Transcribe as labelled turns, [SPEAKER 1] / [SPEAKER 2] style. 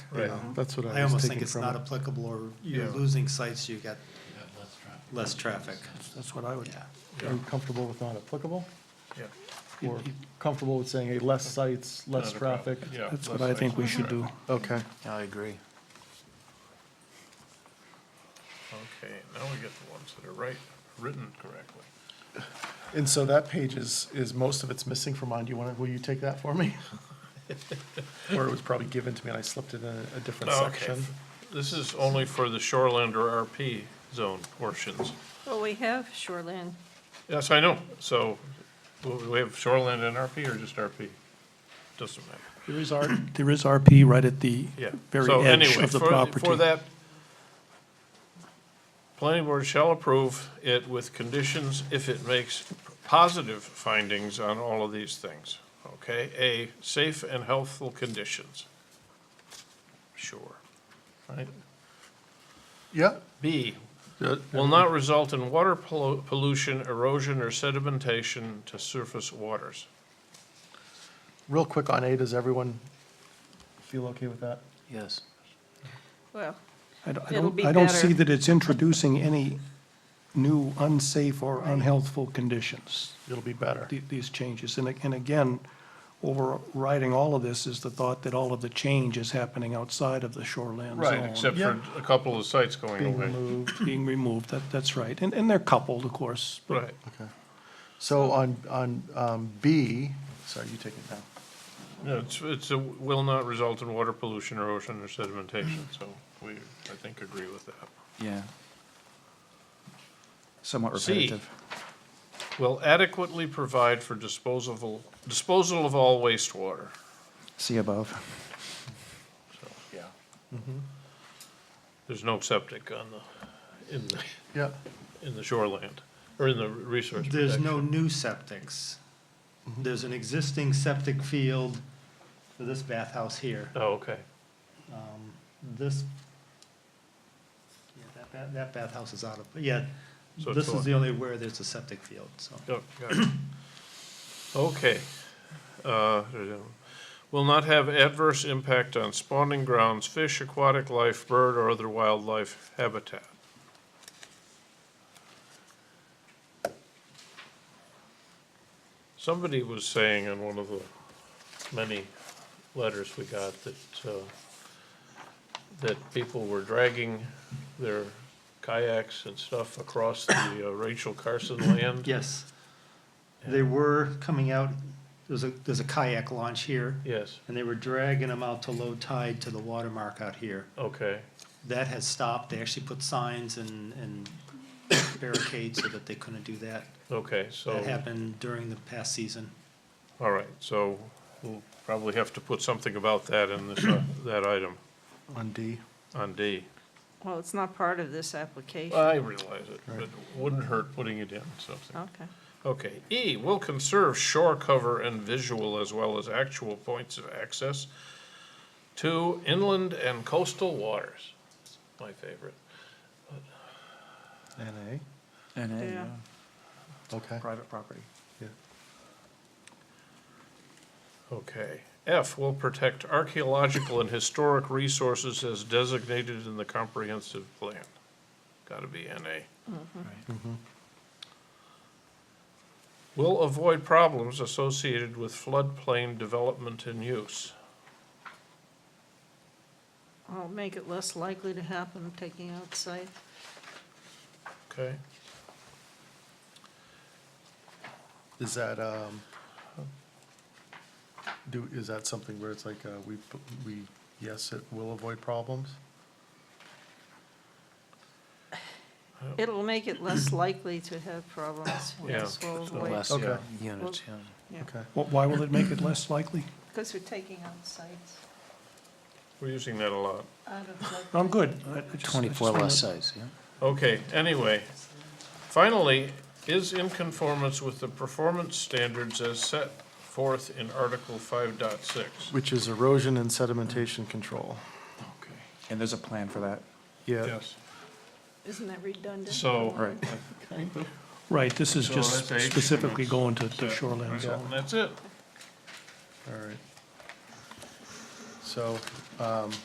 [SPEAKER 1] Right.
[SPEAKER 2] That's what
[SPEAKER 3] Mm-hmm. I
[SPEAKER 2] I was
[SPEAKER 3] almost think
[SPEAKER 2] taking
[SPEAKER 3] it's
[SPEAKER 2] from
[SPEAKER 3] not
[SPEAKER 2] it.
[SPEAKER 3] applicable, or you're
[SPEAKER 2] Yeah.
[SPEAKER 3] losing sites, you got less traffic.
[SPEAKER 2] That's what I would,
[SPEAKER 3] Yeah.
[SPEAKER 2] are you comfortable with not applicable?
[SPEAKER 1] Yeah.
[SPEAKER 2] Or comfortable with saying, hey, less sites, less
[SPEAKER 1] Not a problem.
[SPEAKER 2] traffic?
[SPEAKER 1] Yeah, less
[SPEAKER 4] That's what I
[SPEAKER 1] sites,
[SPEAKER 4] think we
[SPEAKER 1] less
[SPEAKER 4] should do.
[SPEAKER 1] traffic.
[SPEAKER 2] Okay,
[SPEAKER 4] I agree.
[SPEAKER 1] Okay, now we get the ones that are right, written correctly.
[SPEAKER 2] and so that page is, is, most of it's missing from mine. Do you want to, will you take that for me? Or it was probably given to me and I slipped it in a- a different
[SPEAKER 1] Okay.
[SPEAKER 2] section.
[SPEAKER 1] This is only for the shoreland or RP zone portions.
[SPEAKER 5] Well, we have shoreline.
[SPEAKER 1] Yes, I know, so, w- we have shoreland and RP or just RP? Doesn't matter.
[SPEAKER 4] There is R, there is RP right at the
[SPEAKER 1] Yeah.
[SPEAKER 4] very
[SPEAKER 1] So
[SPEAKER 4] edge
[SPEAKER 1] anyway,
[SPEAKER 4] of the
[SPEAKER 1] for-
[SPEAKER 4] property.
[SPEAKER 1] For that, planning board shall approve it with conditions if it makes positive findings on all of these things. Okay, A, safe and healthful conditions. Sure. Right?
[SPEAKER 2] Yeah,
[SPEAKER 1] B,
[SPEAKER 2] Yeah.
[SPEAKER 1] will not result in water pollu- pollution, erosion, or sedimentation to surface waters.
[SPEAKER 2] real quick on A, does everyone feel okay with that?
[SPEAKER 4] Yes.
[SPEAKER 5] Well,
[SPEAKER 4] I don't, I
[SPEAKER 5] It'll
[SPEAKER 4] don't,
[SPEAKER 5] be
[SPEAKER 4] I don't see
[SPEAKER 5] better.
[SPEAKER 4] that it's introducing any new unsafe or unhealthful conditions,
[SPEAKER 2] It'll be better.
[SPEAKER 4] the- these changes. And, a- and again, overriding all of this is the thought that all of the change is happening outside of the shoreline zone.
[SPEAKER 1] Right, except for
[SPEAKER 2] Yeah.
[SPEAKER 1] a couple of sites going
[SPEAKER 2] Being
[SPEAKER 1] away.
[SPEAKER 2] removed.
[SPEAKER 4] Being removed, that, that's right. And, and they're coupled, of course.
[SPEAKER 1] Right.
[SPEAKER 2] So on, on um, B, sorry, you take it now.
[SPEAKER 1] No, it's, it's, a- will not result in water pollution, erosion, or sedimentation, so we, I think, agree with that.
[SPEAKER 6] Yeah. Somewhat
[SPEAKER 1] C.
[SPEAKER 6] repetitive.
[SPEAKER 1] Will adequately provide for disposable, disposal of all wastewater.
[SPEAKER 6] See above.
[SPEAKER 1] Yeah. There's no septic on the, in the,
[SPEAKER 2] Yeah,
[SPEAKER 1] in the shoreland, or in the resource
[SPEAKER 3] There's no
[SPEAKER 1] protection.
[SPEAKER 3] new septics.
[SPEAKER 2] Mm-hmm.
[SPEAKER 3] There's an existing septic field for this bathhouse here.
[SPEAKER 1] Oh, okay.
[SPEAKER 3] Um, This, yeah, that, ba- that bathhouse is out of, yeah,
[SPEAKER 1] So it's
[SPEAKER 3] this
[SPEAKER 1] all-
[SPEAKER 3] is the only where there's a septic field, so.
[SPEAKER 1] Oh, got it. Okay. Uh, Will not have adverse impact on spawning grounds, fish, aquatic life, bird, or other wildlife habitat. Somebody was saying in one of the many letters we got that, uh, that people were dragging their kayaks and stuff across the uh, Rachel Carson land.
[SPEAKER 3] Yes. They were coming out, there's a, there's a kayak launch here,
[SPEAKER 1] Yes,
[SPEAKER 3] and they were dragging them out to low tide to the watermark out here.
[SPEAKER 1] okay,
[SPEAKER 3] That has stopped. They actually put signs and, and barricades so that they couldn't do that.
[SPEAKER 1] okay, so,
[SPEAKER 3] That happened during the past season.
[SPEAKER 1] all right, so we'll probably have to put something about that in this, uh, that item
[SPEAKER 2] on D.
[SPEAKER 1] on D.
[SPEAKER 5] well, it's not part of this application.
[SPEAKER 1] I realize it, but it wouldn't hurt putting it in something.
[SPEAKER 5] Okay.
[SPEAKER 1] Okay, E, will conserve shore cover and visual as well as actual points of access to inland and coastal waters, my favorite.
[SPEAKER 2] And
[SPEAKER 6] And
[SPEAKER 5] Yeah.
[SPEAKER 1] uh,
[SPEAKER 2] A, okay.
[SPEAKER 6] Private property.
[SPEAKER 1] Okay. F will protect archaeological and historic resources as designated in the comprehensive plan. Gotta be NA. Mm-hmm. Will avoid problems associated with floodplain development and use.
[SPEAKER 5] I'll make it less likely to happen, taking out site.
[SPEAKER 1] Okay?
[SPEAKER 2] Is that, um, do, is that something where it's like, uh, we, p- we, yes, it will avoid problems?
[SPEAKER 5] It'll make it less likely to have problems.
[SPEAKER 1] Yeah.
[SPEAKER 6] Less
[SPEAKER 5] Because
[SPEAKER 2] Okay.
[SPEAKER 6] units, yeah.
[SPEAKER 2] Okay.
[SPEAKER 4] Wh- Why will it make it less likely?
[SPEAKER 5] we're taking out sites
[SPEAKER 1] We're using that a lot.
[SPEAKER 5] out of flood.
[SPEAKER 1] Oh.
[SPEAKER 4] I'm good. I- I just- I just
[SPEAKER 6] 24
[SPEAKER 4] wanna-
[SPEAKER 6] less sites, yeah.
[SPEAKER 1] Okay, anyway. Finally, is in conformance with the performance standards as set forth in Article 5.6.
[SPEAKER 2] Which is erosion and sedimentation control.
[SPEAKER 1] Okay.
[SPEAKER 6] And there's a plan for that.
[SPEAKER 2] Yeah,
[SPEAKER 1] Yes,
[SPEAKER 5] Isn't that redundant?
[SPEAKER 1] so.
[SPEAKER 6] Right.
[SPEAKER 4] Right, this is
[SPEAKER 1] So
[SPEAKER 4] just
[SPEAKER 1] that's H, and
[SPEAKER 4] specifically
[SPEAKER 1] it's
[SPEAKER 4] going to the
[SPEAKER 1] set,
[SPEAKER 4] shoreline
[SPEAKER 1] right?
[SPEAKER 4] zone.
[SPEAKER 1] And That's it.
[SPEAKER 2] all right. So, um,